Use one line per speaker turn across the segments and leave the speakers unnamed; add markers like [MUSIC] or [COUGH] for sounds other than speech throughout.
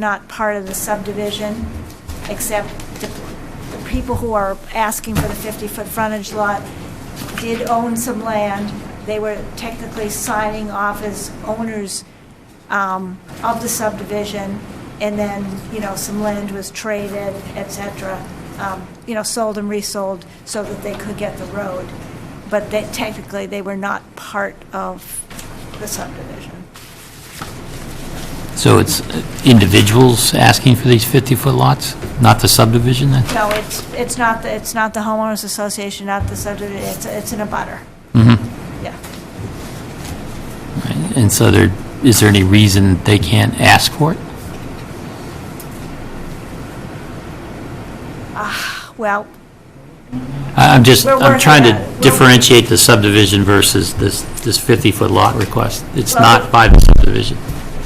not part of the subdivision, except the the people who are asking for the 50-foot frontage lot did own some land. They were technically signing off as owners um, of the subdivision, and then, you know, some land was traded, et cetera, um, you know, sold and resold so that they could get the road. But that technically, they were not part of the subdivision.
So it's individuals asking for these 50-foot lots, not the subdivision then?
No, it's, it's not, the it's not the homeowners association, not the subdivision, it's, it's in a butter. Mm-hmm. Yeah.
And so there, is there any reason they can't ask for it?
Well,
I- I'm just,
We're
I'm
working
trying
on it.
to
We're-
differentiate the subdivision versus this, this 50-foot lot request. It's
Well-
not by the subdivision,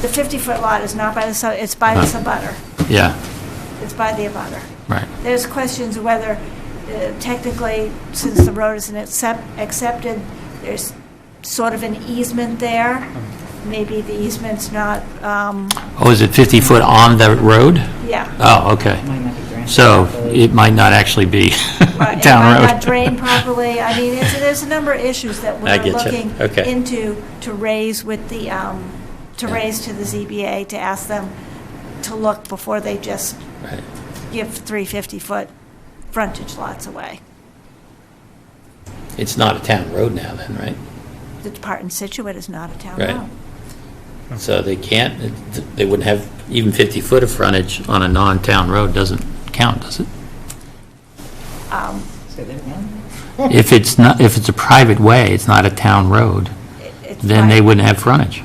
the 50-foot lot is not by the, sub it's by the
Huh.
subutter.
yeah,
It's by the abutter.
right.
There's questions of whether uh, technically, since the road isn't accept- accepted, there's sort of an easement there. Maybe the easement's not, um,
Oh, is it 50 foot on the road?
yeah.
Oh, okay.
Might not be granted.
So it might not actually be [LAUGHS]
Right, it might
town road.
Not
[LAUGHS]
drained properly. I mean, it's, there's a number of issues that
I
we're
get you.
looking
Okay.
into, to raise with the, um, to raise to the ZBA, to ask them to look before they just
Right.
give three 50-foot frontage lots away.
It's not a town road now then, right?
The part in Situate is not a town
Right.
road.
So they can't, they wouldn't have, even 50 foot of frontage on a non-town road doesn't count, does it?
Um,
Say that again?
If it's not, if it's a private way, it's not a town road,
it- it's
then they
fine.
wouldn't have frontage.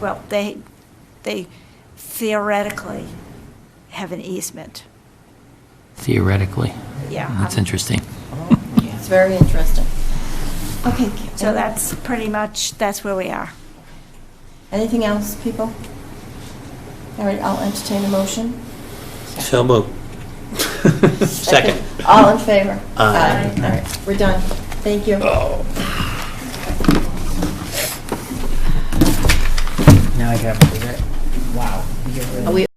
Well, they, they theoretically have an easement,
theoretically.
yeah.
That's
um,
interesting.
It's very interesting. Okay.
So that's pretty much, that's where we are.
Anything else, people? All right, I'll entertain a motion.
So moved. [LAUGHS] Second.
All in favor?
Aye.
All right, we're done. Thank you.
Now I gotta do that. Wow. you get rid of-
Are we